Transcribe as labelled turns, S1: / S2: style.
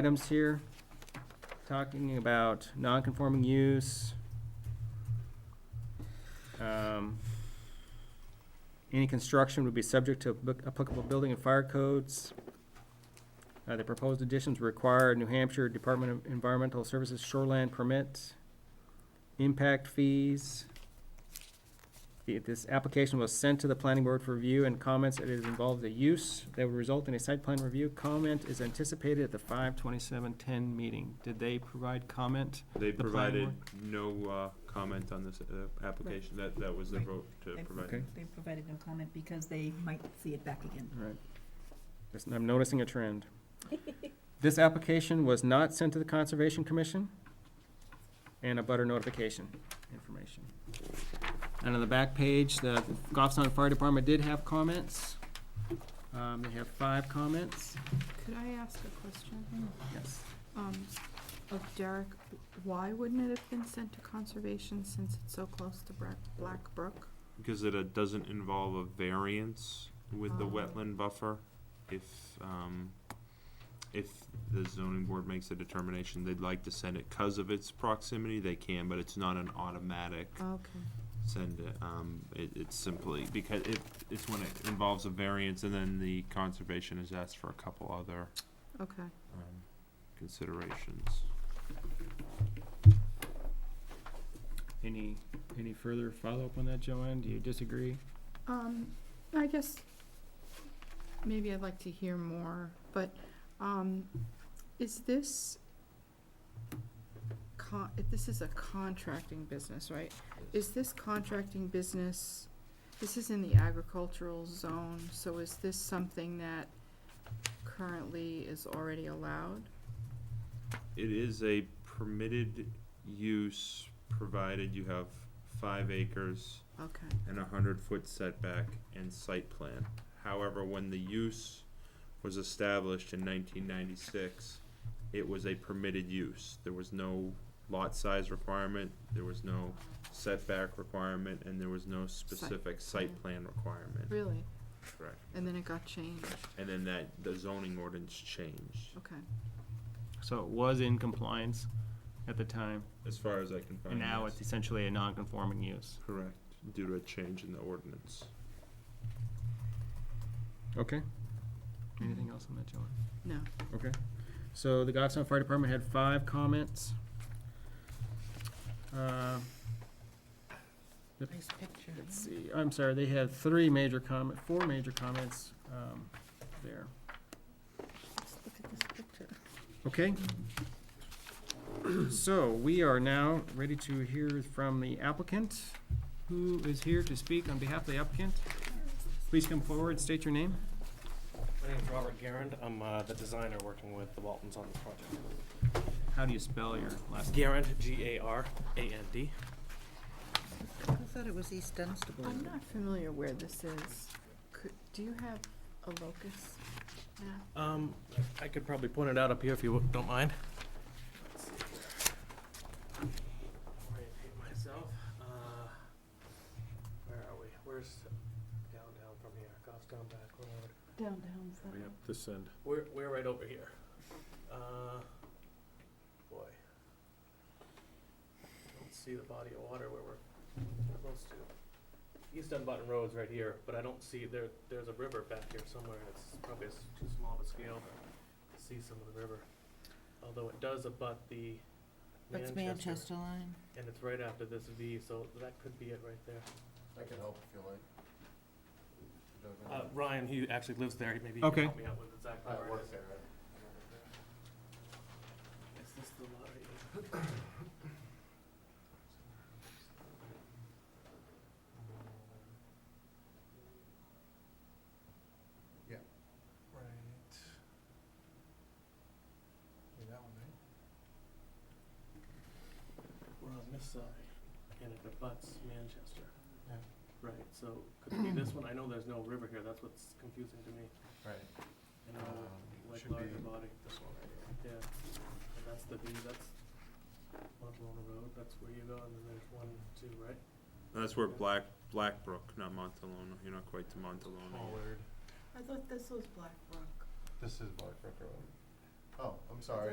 S1: items here, talking about non-conforming use. Um, Any construction would be subject to bu- applicable building and fire codes. Uh, the proposed additions require a New Hampshire Department of Environmental Services shoreland permit, impact fees. The- This application was sent to the planning board for review and comments. It is involved a use that would result in a site plan review. Comment is anticipated at the five twenty-seven ten meeting. Did they provide comment?
S2: They
S1: The plan
S2: provided no uh, comment on this uh, application, that, that was the
S3: Right.
S2: vote to
S3: They-
S2: provide.
S3: They provided no comment because they might see it back again.
S1: Right. Just- I'm noticing a trend. This application was not sent to the Conservation Commission and a butter notification information. And on the back page, the Goffstown Fire Department did have comments. Um, they have five comments.
S4: Could I ask a question?
S1: Yes.
S4: Um, of Derek, why wouldn't it have been sent to conservation since it's so close to Black, Black Brook?
S2: Because it uh, doesn't involve a variance with the
S4: Oh.
S2: wetland buffer. If, um, if the zoning board makes a determination they'd like to send it because of its proximity, they can, but it's not an automatic
S4: Okay.
S2: send it. Um, it, it's simply, because it, it's when it involves a variance and then the conservation is asked for a couple other,
S4: Okay.
S2: um, considerations.
S1: Any, any further follow-up on that, Joanne? Do you disagree?
S4: Um, I guess maybe I'd like to hear more, but, um, is this con, if this is a contracting business, right? Is this contracting business, this is in the agricultural zone, so is this something that currently is already allowed?
S2: It is a permitted use, provided you have five acres
S4: Okay,
S2: and a hundred foot setback and site plan. However, when the use was established in nineteen ninety-six, it was a permitted use. There was no lot size requirement, there was no setback requirement, and there was no specific site plan requirement.
S4: really?
S2: Correct.
S4: And then it got changed,
S2: And then that, the zoning ordinance changed,
S4: okay.
S1: So it was in compliance at the time,
S2: as far as I can find.
S1: and now
S2: yes.
S1: it's essentially a non-conforming use.
S2: Correct, due to a change in the ordinance.
S1: Okay. Anything else on that, Joanne?
S4: No,
S1: Okay, so the Goffstown Fire Department had five comments. Uh,
S3: Nice picture.
S1: Let's see, I'm sorry, they had three major comment, four major comments um, there.
S3: Let's look at this picture.
S1: Okay. So we are now ready to hear from the applicant. Who is here to speak on behalf of the applicant? Please come forward, state your name.
S5: My name's Robert Garand. I'm uh, the designer working with the Waltons on this project.
S1: How do you spell your last name?
S5: Garand, G-A-R-A-N-D.
S3: I thought it was East Dunstable.
S4: I'm not familiar where this is. Could, do you have a locus map?
S5: Um, I could probably point it out up here if you don't mind. Let's see. Orientate myself. Uh, Where are we? Where's downtown from here? Goffstown back road.
S4: Downtown
S6: Way up this end.
S5: We're, we're right over here. Uh, boy. Don't see the body of water where we're close to. East Dunbarton Road's right here, but I don't see, there, there's a river back here somewhere, and it's probably s- too small of a scale to see some of the river. Although it does abut the
S3: That's
S5: Manchester,
S3: Manchester line.
S5: and it's right after this V, so that could be it right there.
S6: I can help if you like.
S5: Uh, Ryan, he actually lives there, maybe he
S1: Okay.
S5: can help me out with exactly where it is.
S6: there.
S5: Is this the lot right here?
S6: Yeah.
S5: Right. We're on this side, and it abuts Manchester.
S6: Yeah.
S5: Right, so could it be this one? I know there's no river here, that's what's confusing to me.
S6: Right.
S5: I know,
S6: Um,
S5: like
S6: should
S5: larger
S6: be
S5: body.
S6: This one right here.
S5: Yeah, and that's the view, that's Montalona Road, that's where you go, and then there's one, two, right?
S2: That's where Black, Blackbrook, not Montalona, you're not quite to Montalona.
S5: Pollard.
S4: I thought this was Black Rock.
S6: This is Black Brook Road. Oh, I'm sorry.